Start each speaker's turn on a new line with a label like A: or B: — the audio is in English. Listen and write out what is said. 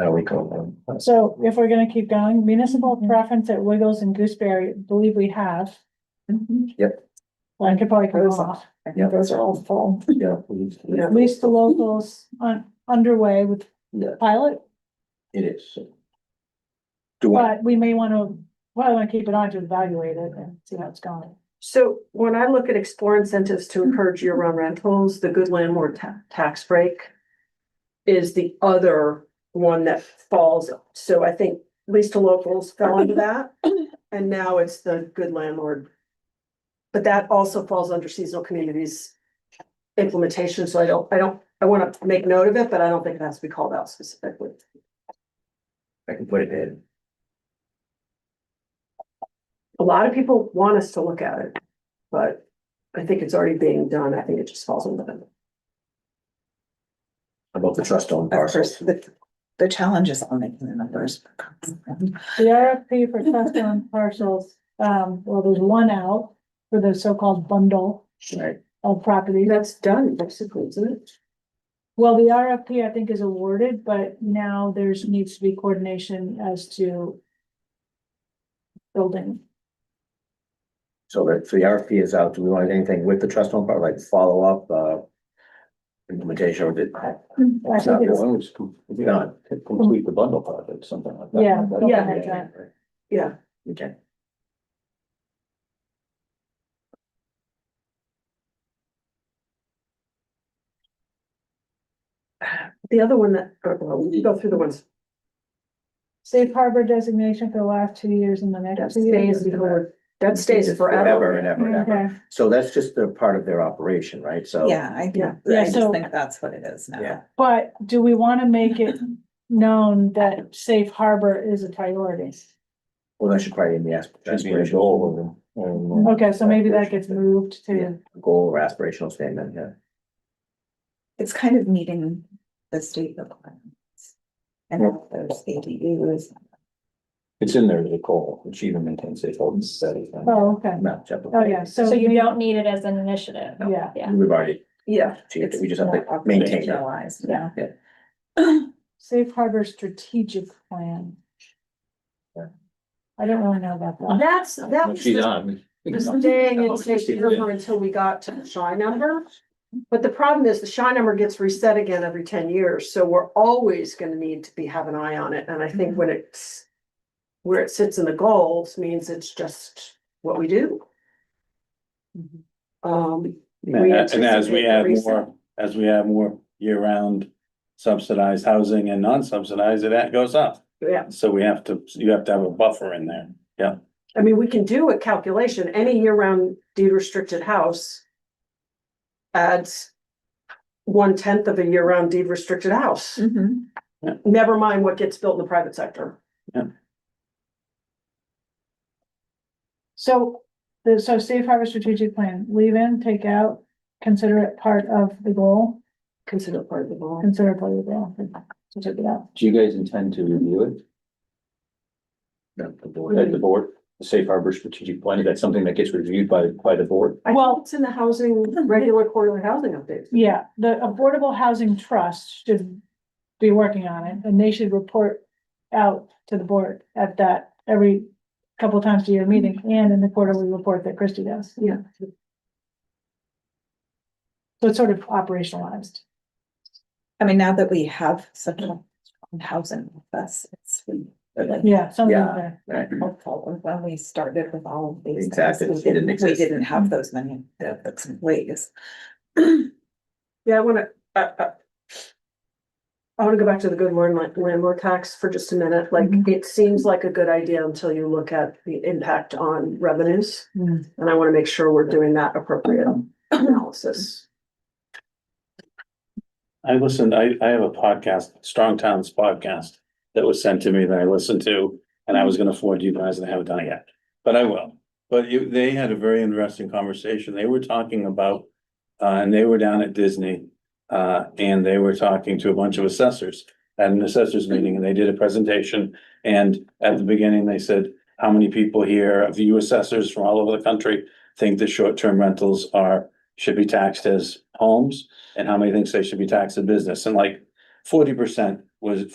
A: Uh, we call them. That's-
B: So if we're gonna keep going, municipal
C: Mm-hmm.
B: preference at Wiggles and Gooseberry, I believe we have.
A: Yep.
B: I could probably go off.
C: I think
A: Yeah.
C: those are all full.
A: Yeah, please.
C: Yeah.
B: At least the locals on underway with
A: Yeah,
B: pilot,
A: it is. Do I,
B: but we may wanna, well, I wanna keep it on to evaluate it and see how it's going.
C: So when I look at explore incentives to encourage year-round rentals, the good landlord ta- tax break is the other one that falls. So I think at least to locals fell into that, and now it's the good landlord. But that also falls under seasonal communities implementation, so I don't, I don't, I want to make note of it, but I don't think it has to be called out specifically.
A: I can put it in.
C: A lot of people want us to look at it, but I think it's already being done. I think it just falls under the
A: About the trust owned
D: Of course,
A: parcels.
D: the, the challenge is on making the numbers.
B: The RFP for test on parcels, um, well, there's one out for the so-called bundle
A: Right.
B: of properties.
C: That's done, basically, isn't it?
B: Well, the RFP I think is awarded, but now there's needs to be coordination as to building.
A: So that, so the RFP is out. Do we want anything with the trust owned part, like follow up, uh? Implementation or did?
B: I think it's,
A: Done.
E: Complete the bundle project, something like that.
B: yeah.
E: That's-
B: something
C: Yeah.
B: like that.
C: Yeah,
A: Okay.
C: the other one that, or, well, we can go through the ones.
B: Safe harbor designation for the last two years and the
C: That
B: next two
C: stays
B: years.
C: for, that stays forever.
A: and ever and ever.
B: Okay,
A: So that's just the part of their operation, right? So.
D: Yeah, I think,
C: Yeah.
B: Yeah,
D: I just
B: so-
D: think that's what it is now.
A: Yeah.
B: but do we want to make it known that safe harbor is a priority?
A: Well, that should probably be the asp-
E: Should be a
A: aspirational
E: goal of them. And, uh,
B: Okay, so maybe that gets moved to,
A: goal or aspirational statement, yeah.
D: It's kind of meeting the state requirements. And all those ADUs.
E: It's in there as a goal, achievement maintain safe holding steady.
B: oh, okay,
A: Not separate.
B: oh, yeah, so.
F: So you
B: maybe-
F: don't need it as an initiative.
B: Yeah,
F: Yeah.
A: We've already
C: Yeah,
A: achieved it. We just have
D: more
A: to maintain it.
D: operationalized now.
B: safe harbor strategic plan. I don't really know about that.
C: that's, that was
E: She's
C: the
E: on.
C: the staying
E: Oh,
C: in safe harbor until we got to the shy number. But the problem is the shy number gets reset again every ten years, so we're always gonna need to be, have an eye on it, and I think when it's where it sits in the goals means it's just what we do. Um. we
G: And as
C: anticipate
G: we add
C: reset.
G: more, as we add more year-round subsidized housing and non-subsidized, that goes up.
C: Yeah,
G: So we have to, you have to have a buffer in there.
C: I mean, we can do a calculation, any year-round deed restricted house. Adds. One tenth of a year-round deed restricted house,
D: Mhm.
C: never mind what gets built in the private sector.
B: So, the, so safe harbor strategic plan, leave in, take out, consider it part of the goal,
C: Consider it part of the law.
B: consider it part of the goal. so Take it out.
E: Do you guys intend to review it?
A: The- the board.
E: at the board, the safe harbor strategic plan, is that something that gets reviewed by, by the board?
C: I
B: Well-
C: think it's in the housing, regular quarterly housing updates.
B: Yeah, the Affordable Housing Trust should be working on it, and they should report out to the board at that every couple times a year meeting, and in the quarterly report that Christie does.
C: Yeah.
B: So it's sort of operationalized.
D: I mean, now that we have such a strong housing with us, it's really
B: Yeah, something
A: Yeah.
B: like that.
A: Right.
D: helpful. When we started with all of these.
A: Exactly.
D: things,
A: It
D: We
A: didn't
D: didn't, we
A: exist.
D: didn't have those many uh, ways.
C: Yeah, I wanna, uh, uh. I wanna go back to the good landlord, landlord tax for just a minute, like,
B: Mhm.
C: it seems like a good idea until you look at the impact on revenues.
B: Mm.
C: And I wanna make sure we're doing that appropriate analysis.
G: I listened, I, I have a podcast, Strong Towns podcast, that was sent to me that I listened to, and I was gonna forward to you guys, and I haven't done it yet, but I will. But you, they had a very interesting conversation. They were talking about, uh, and they were down at Disney, uh, and they were talking to a bunch of assessors at an assessors meeting, and they did a presentation, and at the beginning, they said, how many people here, of you assessors from all over the country, think that short-term rentals are, should be taxed as homes? and how many thinks they should be taxed in business, and like forty percent was